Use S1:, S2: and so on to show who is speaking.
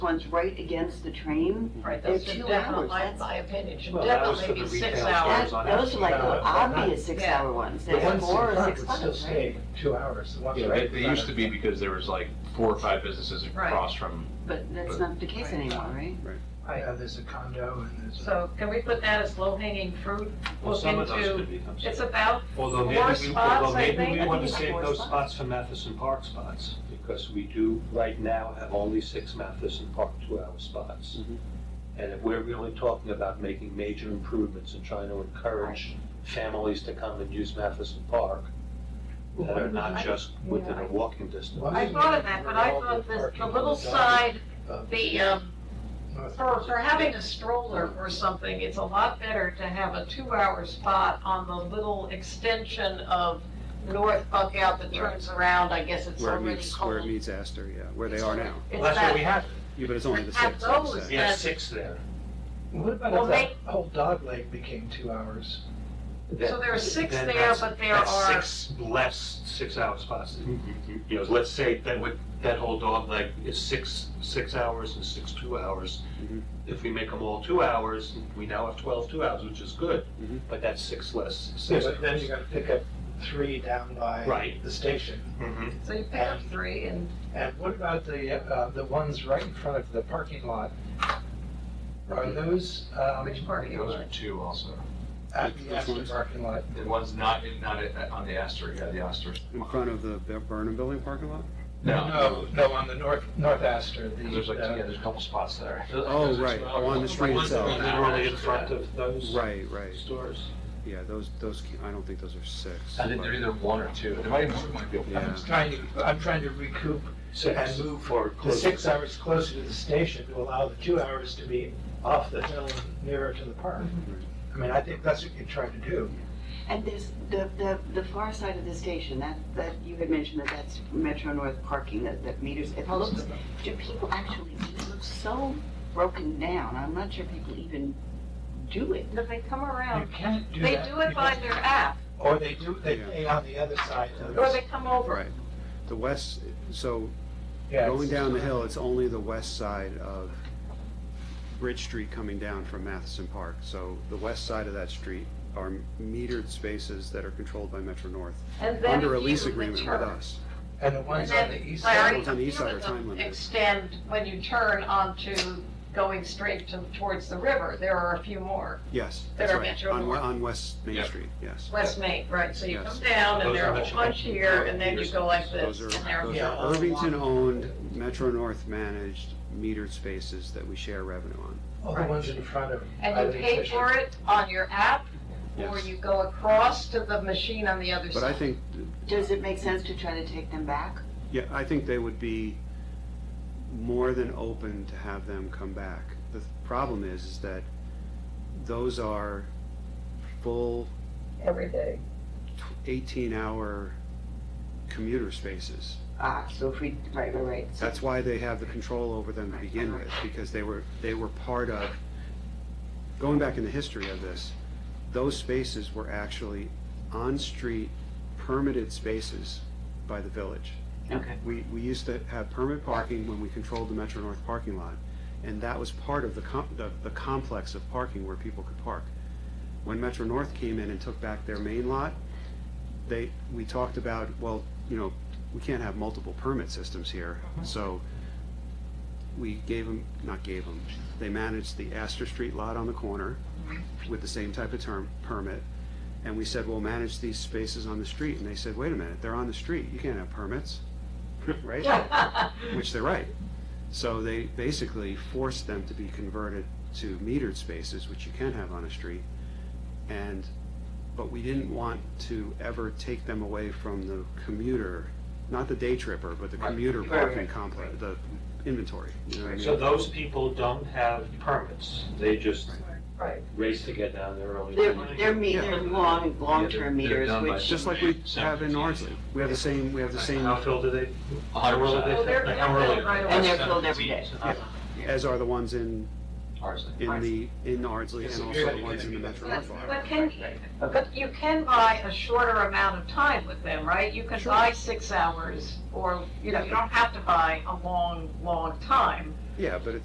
S1: one's right against the train.
S2: Right,
S1: They're
S2: those
S1: two
S2: should definitely,
S1: hours,
S2: my
S1: that's-
S2: my opinion, should
S3: Well, that was
S2: definitely be
S3: for the
S2: six
S3: retail
S1: That,
S2: hours.
S3: stores. on
S1: those are like the
S3: average, yeah, but
S1: obvious six-hour ones,
S3: The
S1: there's
S3: ones in
S1: four or
S3: front
S1: six
S3: would still
S1: ones, right?
S3: stay two hours, the ones
S4: Yeah,
S3: right
S4: they,
S3: in
S4: they
S3: front
S4: used to
S3: of-
S4: be because there was like four or five businesses
S2: Right.
S4: across from,
S1: But that's not the case
S2: Right.
S1: anymore, right?
S2: Right.
S3: Yeah, there's a condo and there's. a-
S2: So can we put that as low-hanging fruit?
S5: Well,
S2: Look
S5: some of those
S2: into,
S5: could become.
S2: it's about
S5: Although maybe
S2: four
S5: we, although
S2: spots, I
S5: maybe we
S2: think.
S5: want to
S1: it's
S5: save
S1: four
S5: those
S1: spots.
S5: spots for Matheson Park spots, because we do right now have only six Matheson Park two-hour spots.
S4: Mhm.
S5: And if we're really talking about making major improvements and trying to encourage families to come and use Matheson Park, that are not just within a walking distance.
S3: Well,
S2: I thought of that, but I thought this, the little side,
S3: Uh,
S2: the, um,
S3: north-
S2: for, for having a stroller or something, it's a lot better to have a two-hour spot on the little extension of North Buckout that turns around, I guess it's
S6: Where it
S2: already
S6: meets, where it
S2: called.
S6: meets Astor, yeah, where they are now.
S2: It's
S5: That's what
S2: that-
S5: we have,
S6: Yeah, but it's only the
S2: Have
S6: six, like
S2: those.
S6: you
S5: we
S6: say.
S5: have six there.
S3: What about
S2: Well,
S3: if that whole dog leg became two hours?
S2: So there are six
S5: Then
S2: there,
S5: that's-
S2: but there
S5: that's
S2: are-
S5: Six less, six-hour spots. You know, let's say that would, that whole dog leg is six, six hours and six two hours.
S6: Mhm.
S5: If we make them all two hours, we now have twelve two hours, which is good,
S6: Mhm.
S5: but that's six less, six
S3: But then
S5: hours.
S3: you gotta pick up three down by
S5: Right.
S3: the station.
S5: Mhm.
S2: So you pick up three and
S3: And what about the, uh, the ones right in front of the parking lot? Are those, um,
S2: which part you
S4: those are
S2: want?
S4: two also.
S3: at the
S6: Which
S3: Astor
S6: ones?
S3: parking lot?
S4: The one's not, not at- on the Astor, yeah, the Astor.
S6: In front of the Bur- Burnham Building parking lot?
S3: No, no, on the north, north Astor, the.
S4: There's like, yeah,
S3: uh,
S4: there's a couple spots there.
S6: Oh, right, on the street
S5: Uh, Ones that
S6: itself.
S5: are Literally in front of those
S6: Right, right,
S5: stores.
S6: yeah, those, those, can't- I don't think those are six.
S4: I think they're
S6: but-
S4: either one or two. There might even, might be a
S6: Yeah.
S3: I'm trying to, I'm trying to recoup
S5: Six.
S3: And move
S5: for
S3: the six
S5: closer.
S3: hours closer to the station to allow the two hours to be off the hill and nearer to the park. I mean, I think that's what you're trying to do.
S1: And there's the, the, the far side of the station, that, that you had mentioned that that's Metro North parking, that, that meters, it looks, do people actually, it looks so broken down, I'm not sure people even do it.
S2: But they come
S3: You
S2: around,
S3: can't do
S2: they
S3: that.
S2: do it by their app,
S3: Or they do, they pay on the other side of
S2: or they
S3: the,
S2: come over.
S6: Right, the west, so
S3: yeah.
S6: going down the hill, it's only the west side of Bridge Street coming down from Matheson Park. So the west side of that street are metered spaces that are controlled by Metro North,
S2: And then
S6: under a
S2: if
S6: lease
S2: you
S6: agreement with
S2: return-
S6: us.
S3: And the ones on the
S2: And
S3: east
S2: Larry,
S3: side,
S6: Ones on the east
S2: few
S6: side
S2: of
S6: are time
S2: them
S6: limited.
S2: Extend when you turn onto going straight to, towards the river, there are a few more,
S6: Yes,
S2: That
S6: that's
S2: are
S6: right,
S2: Metro
S6: on,
S2: North.
S6: on West Main
S4: Yeah.
S6: Street, yes.
S2: West Main, right, so you
S6: Yes.
S2: come down and
S5: Those
S2: there
S5: are
S2: are a
S5: Metro
S2: bunch here, and then you go like this,
S6: Those are,
S2: and there
S6: those
S3: Yeah.
S6: are Irvington-owned, Metro North-managed metered spaces that we share revenue on.
S3: all the ones in front of.
S2: And
S3: either
S2: you pay
S3: station.
S2: for it on your app, or
S6: Yes.
S2: you go across to the machine on the other
S6: But I
S2: side.
S6: think,
S1: Does it make sense to try to take them back?
S6: yeah, I think they would be more than open to have them come back. The th- problem is, is that those are full
S2: Every day.
S6: eighteen-hour commuter spaces.
S1: Ah, so if we, right, right, right. So-
S6: That's why they have the control over them to begin with, because they were, they were part of, going back in the history of this, those spaces were actually on-street permitted spaces by the village.
S1: Okay.
S6: We, we used to have permit parking when we controlled the Metro North parking lot, and that was part of the com, the, the complex of parking where people could park. When Metro North came in and took back their main lot, they, we talked about, well, you know, we can't have multiple permit systems here, so we gave them, not gave them, they managed the Astor Street lot on the corner with the same type of term, permit, and we said, we'll manage these spaces on the street, and they said, wait a minute, they're on the street, you can't have permits, right? Which they're right. So they basically forced them to be converted to metered spaces, which you can have on a street. And, but we didn't want to ever take them away from the commuter, not the day tripper, but the commuter
S1: Right, right,
S6: parking complex, the inventory, you know what I mean?
S5: So those people don't have permits, they just
S2: Right.
S5: race to get down there early.
S1: They're, they're me, they're long,
S4: Yeah, they're-
S1: long-term
S4: they're
S1: meters,
S4: done by-
S1: which.
S6: Just like we have in Ardsley, we have the same, we have the same,
S5: How filled are they?
S4: A hundred
S5: How early
S2: Well,
S5: they
S4: percent.
S2: they're-
S5: fill- how
S2: they're
S5: early
S2: filled right
S5: they
S2: away.
S5: fill?
S1: And they're filled every day.
S5: Yeah.
S6: as are the ones in,
S4: Ours.
S6: in the, in Ardsley and also the ones in the Metro
S2: But
S6: North.
S2: but can, but you can buy a shorter amount of time with them, right? You can buy six hours, or, you know, you don't have to buy a long, long time.
S6: Yeah, but it's